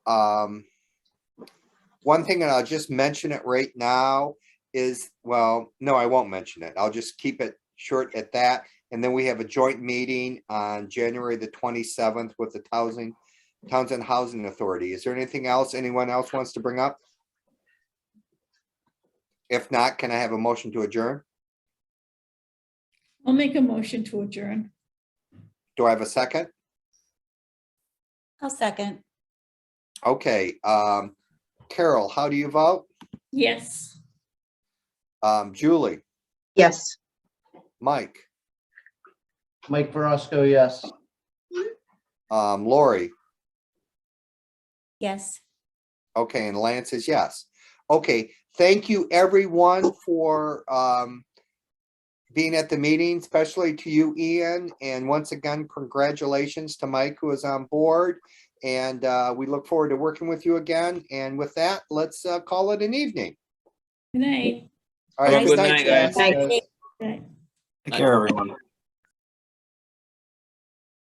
Um, one thing, and I'll just mention it right now, is, well, no, I won't mention it. I'll just keep it short at that. And then we have a joint meeting on January the twenty-seventh with the Housing, Townsend Housing Authority. Is there anything else anyone else wants to bring up? If not, can I have a motion to adjourn? I'll make a motion to adjourn. Do I have a second? I'll second. Okay, um, Carol, how do you vote? Yes. Um, Julie, Yes. Mike, Mike Verosco, yes. um, Lori? Yes. Okay, and Lance says yes. Okay, thank you everyone for um being at the meeting, especially to you, Ian, and once again, congratulations to Mike who is on board. And uh, we look forward to working with you again. And with that, let's uh, call it an evening. Good night. All right, Have a good good night, night, guys. guys. Thank you. Good night. Take care, everyone.